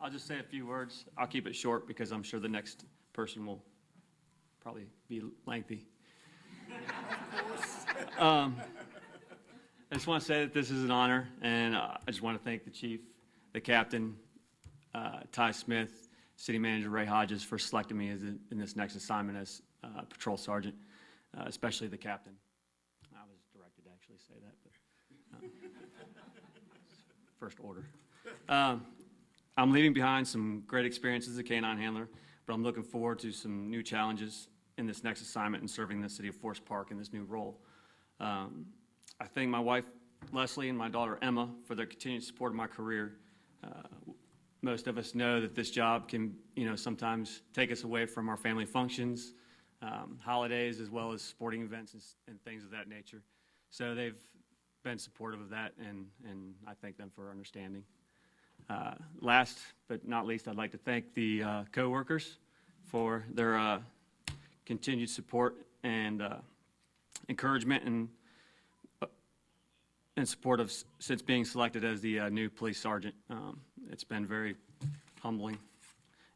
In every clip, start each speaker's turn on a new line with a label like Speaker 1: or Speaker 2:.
Speaker 1: I'll just say a few words. I'll keep it short because I'm sure the next person will probably be lengthy. Um, I just want to say that this is an honor, and uh, I just want to thank the chief, the captain, uh, Ty Smith, city manager Ray Hodges for selecting me as in in this next assignment as uh, patrol sergeant, uh, especially the captain. I was directed to actually say that, but uh, first order. Um, I'm leaving behind some great experiences as a canine handler, but I'm looking forward to some new challenges in this next assignment and serving the city of Forest Park in this new role. Um, I thank my wife Leslie and my daughter Emma for their continued support of my career. Uh, most of us know that this job can, you know, sometimes take us away from our family functions, um, holidays, as well as sporting events and, s- and things of that nature. So they've been supportive of that, and, and I thank them for understanding. Uh, last but not least, I'd like to thank the uh, coworkers for their uh, continued support and uh, encouragement and in support of, s- since being selected as the uh, new police sergeant. Um, It's been very humbling,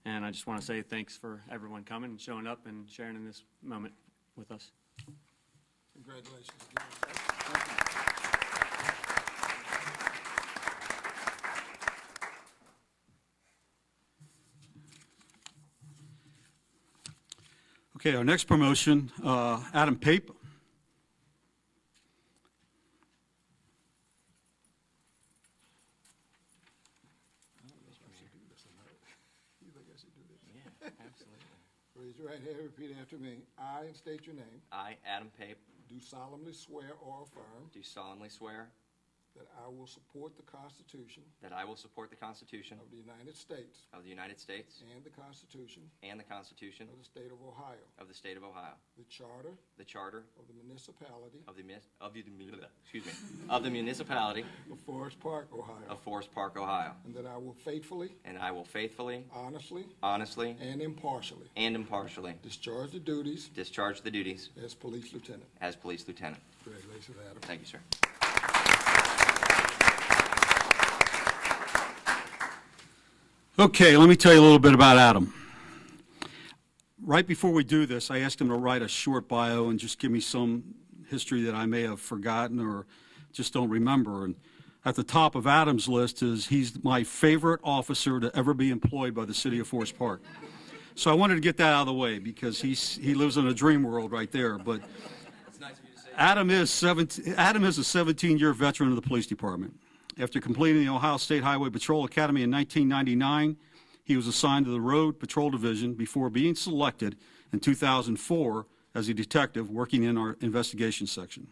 Speaker 1: and I just want to say thanks for everyone coming and showing up and sharing in this moment with us.
Speaker 2: Congratulations.
Speaker 3: Okay, our next promotion, uh, Adam Pape.
Speaker 2: You think I should do this?
Speaker 4: Yeah, absolutely.
Speaker 2: Raise your right hand, repeat after me. I, and state your name,
Speaker 4: I, Adam Pape,
Speaker 2: do solemnly swear or affirm
Speaker 4: do solemnly swear
Speaker 2: that I will support the Constitution
Speaker 4: that I will support the Constitution
Speaker 2: of the United States
Speaker 4: of the United States
Speaker 2: and the Constitution
Speaker 4: and the Constitution
Speaker 2: of the State of Ohio,
Speaker 4: of the State of Ohio,
Speaker 2: the Charter
Speaker 4: the Charter
Speaker 2: of the Municipality
Speaker 4: of the, mis- of the, excuse me, of the municipality
Speaker 2: of Forest Park, Ohio,
Speaker 4: of Forest Park, Ohio,
Speaker 2: and that I will faithfully,
Speaker 4: and I will faithfully,
Speaker 2: honestly,
Speaker 4: honestly,
Speaker 2: and impartially
Speaker 4: and impartially
Speaker 2: discharge the duties
Speaker 4: discharge the duties
Speaker 2: as police lieutenant.
Speaker 4: as police lieutenant.
Speaker 2: Congratulations, Adam.
Speaker 4: Thank you, sir.
Speaker 3: Okay, let me tell you a little bit about Adam. Right before we do this, I asked him to write a short bio and just give me some history that I may have forgotten or just don't remember. And at the top of Adam's list is he's my favorite officer to ever be employed by the city of Forest Park. So I wanted to get that out of the way because he's, he lives in a dream world right there. But
Speaker 4: It's nice of you to say.
Speaker 3: Adam is 17, Adam is a 17-year veteran of the police department. After completing the Ohio State Highway Patrol Academy in 1999, he was assigned to the Road Patrol Division before being selected in 2004 as a detective working in our investigation section.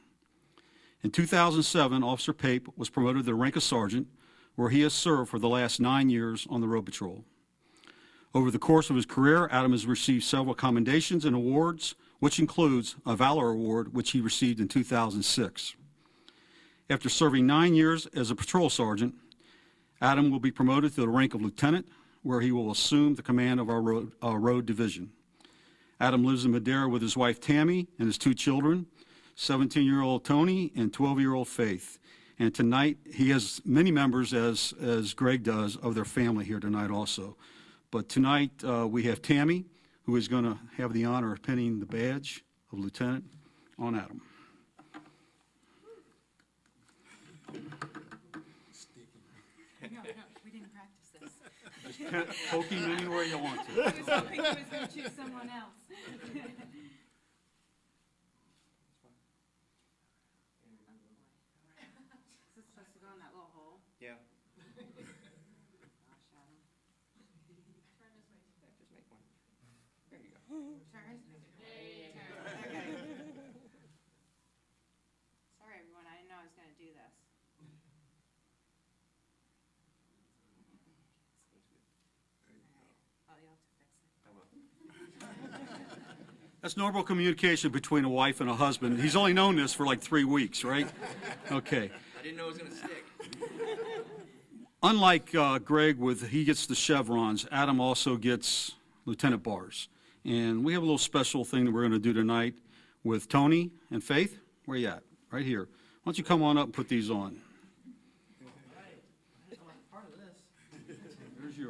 Speaker 3: In 2007, Officer Pape was promoted to the rank of sergeant, where he has served for the last nine years on the Road Patrol. Over the course of his career, Adam has received several commendations and awards, which includes a Valor Award, which he received in 2006. After serving nine years as a patrol sergeant, Adam will be promoted to the rank of lieutenant, where he will assume the command of our road, uh, road division. Adam lives in Madeira with his wife Tammy and his two children, 17 year old Tony and 12 year old Faith. And tonight, he has many members, as, as Greg does, of their family here tonight also. But tonight, uh, we have Tammy, who is going to have the honor of pinning the badge of lieutenant on Adam.
Speaker 5: No, no, we didn't practice this.
Speaker 3: Poke him anywhere you want to.
Speaker 5: I was hoping he was gonna choose someone else. Is this supposed to go in that little hole?
Speaker 4: Yeah.
Speaker 5: Gosh, Adam.
Speaker 4: Just make one.
Speaker 5: Turn. Okay. Sorry, everyone, I didn't know I was gonna do this. Oh, you'll have to fix it.
Speaker 3: That's normal communication between a wife and a husband. He's only known this for like three weeks, right? Okay.
Speaker 4: I didn't know it was going to stick.
Speaker 3: unlike uh, Greg with he gets the chevrons, Adam also gets lieutenant bars. And we have a little special thing that we're going to do tonight with Tony and Faith. Where you at? Right here. Why don't you come on up and put these on?